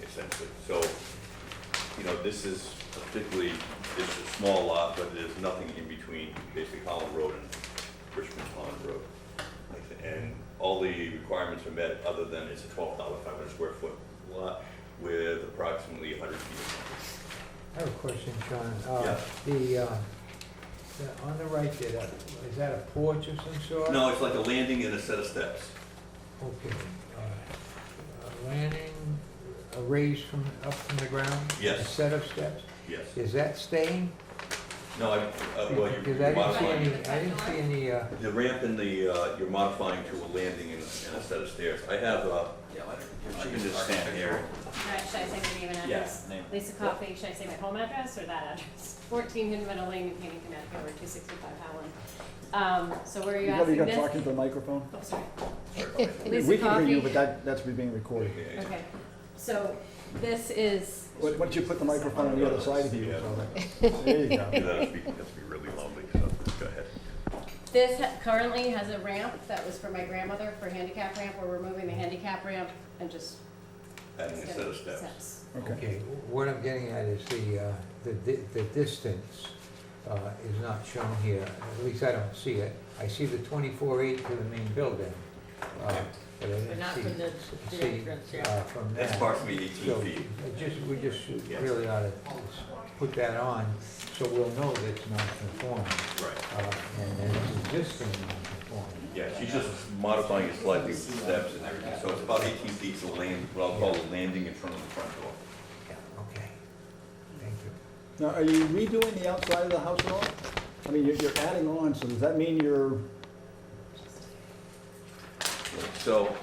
Exactly, uh, so, you know, this is a particularly, it's a small lot, but there's nothing in between basically Holland Road and Richmond Pond Road. And all the requirements are met, other than it's a twelve thousand five hundred square foot lot with approximately hundred feet. I have a question, Sean. Uh, Yeah. The, uh, the- on the right there, that- is that a porch of some sort? No, it's like a landing and a set of steps. Okay. uh, A landing, a raise from, up from the ground? Yes. A set of steps? Yes, Is that staying? no, I, uh, well, you- Because you're I didn't see any, modifying, I didn't see any, uh, the ramp and the, uh, you're modifying to a landing and and a set of stairs. I have, uh, Yeah, let her- if she can just stand here. Alright, should I say my name and Yeah, address? name. Lisa Coffey, should I say my home address or that address? Fourteen New Meadow Lane, New Canaan, Connecticut, over two sixty-five Howland. Um, so where are you You gotta, asking you gotta talk this? into the microphone. Oh, sorry. Sorry about that. Lisa We can hear Coffey. you, but that, that's being recorded. Yeah, Okay, so this is, Why why don't you put the microphone on the other side of you? Yeah. so that- There you Yeah, go. That'd be, that'd be really lonely, so go ahead. this ha- currently has a ramp that was for my grandmother for handicap ramp. We're removing the handicap ramp and just. Adding a set of steps. Okay. okay, what I'm getting at is the, uh, the di- the distance uh, is not shown here. At least I don't see it. I see the 24 eight to the main building. uh, But I But didn't not see, from the- the see, entrance, yeah. uh, from that. That's approximately eighteen So, feet. I just, we just Yeah. really ought to put that on, so we'll know that it's non-conforming, Right. uh, and that it's existing non-conforming. Yeah, she's just modifying it slightly with the steps and everything, so it's about eighteen feet to land, what I'll call a landing in front of the front door. Yeah, okay, thank you. Now, are you redoing the outside of the house at all? I mean, you're, you're adding on, so does that mean you're, So,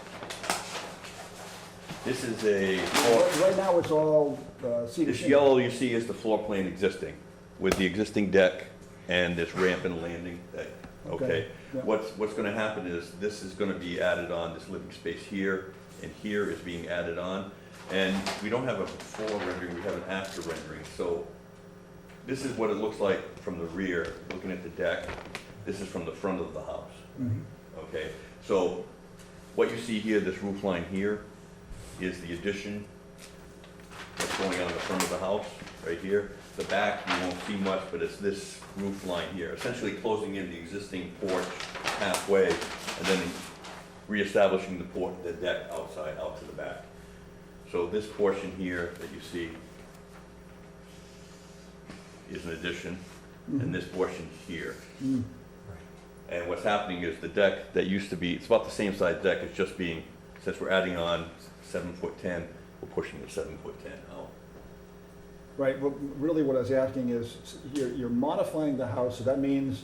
this is a, floor- right right now it's all uh, cedar this shingles? yellow you see is the floor plan existing, with the existing deck and this ramp and landing deck, okay? Okay, yeah. What's, what's gonna happen is, this is gonna be added on, this living space here, and here is being added on. And we don't have a before rendering, we have an after rendering, so this is what it looks like from the rear, looking at the deck. This is from the front of the house, Mhm. okay? So what you see here, this roof line here, is the addition that's going on the front of the house, right here. The back, you won't see much, but it's this roof line here, essentially closing in the existing porch halfway, and then reestablishing the porch, the deck outside, out to the back. So this portion here that you see is an addition, and this portion here. Mm. And what's happening is the deck that used to be, it's about the same size deck, it's just being, since we're adding on seven foot ten, we're pushing the seven foot ten out. Right, well, really what I was asking is, s- you're, you're modifying the house, so that means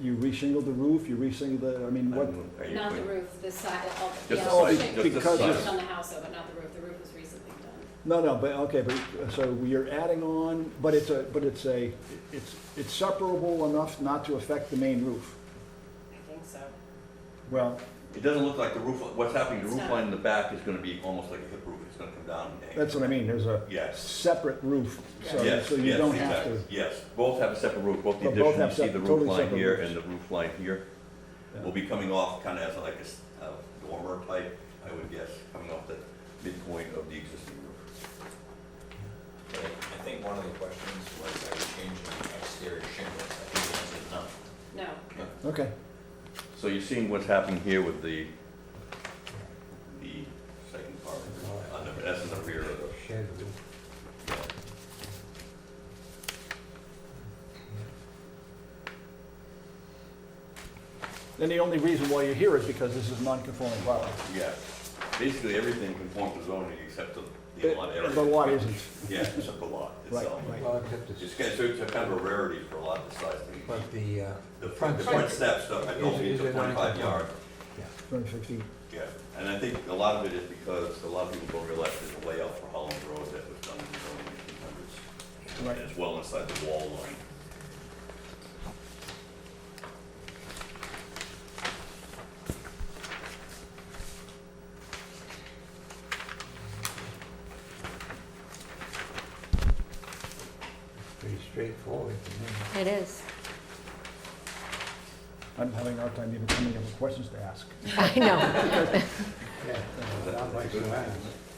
you reshingled the roof, you reshingled the, I mean, I what? Oh, don't know, are you Not the clear? roof, this side, all, Just yeah, the all side, shaped- just the because side. shaped on the house, though, but not the roof. The roof was recently done. No, no, but, okay, but, uh, so you're adding on, but it's a, but it's a, it's, it's separable enough not to affect the main roof. I think so. Well, It doesn't look like the roof, what's happening, the It's roof not. line in the back is gonna be almost like a hip roof, it's gonna come down and hang. that's what I mean, there's a Yes, separate roof, so, yes, so you yes, don't have exactly. to. Yes, both have a separate roof, both the But addition, both you have see sep- the roof totally line separate here roofs. and the roof line here. Yeah. Will be coming off kinda as like a s- a dormer type, I would guess, coming off the midpoint of the existing roof. But I I think one of the questions was, are you changing the exterior shingles? I think the answer is no. No, Okay, So you're seeing what's happening here with the, the second part, on the, that's in the rear of uh, the, Shed roof. then the only reason why you're here is because this is non-conforming lot. yeah. Basically, everything conforms to zoning except the, the lot area. But the lot isn't, Yeah, except the lot Right, itself. right. Well, except It's the, kind of, so it's a kind of a rarity for a lot of this size thing. but the, uh, The front, front the front step- steps, though, I don't is- mean is the a non- twenty-five yard, twenty-six feet. yeah. And I think a lot of it is because a lot of people don't realize there's a layout for Holland Road that was done in the early eighteen hundreds. Right. And it's well inside the wall line. pretty straightforward to me. It is. I'm having a hard time even coming up with questions to ask. I know. Yeah, not much to ask.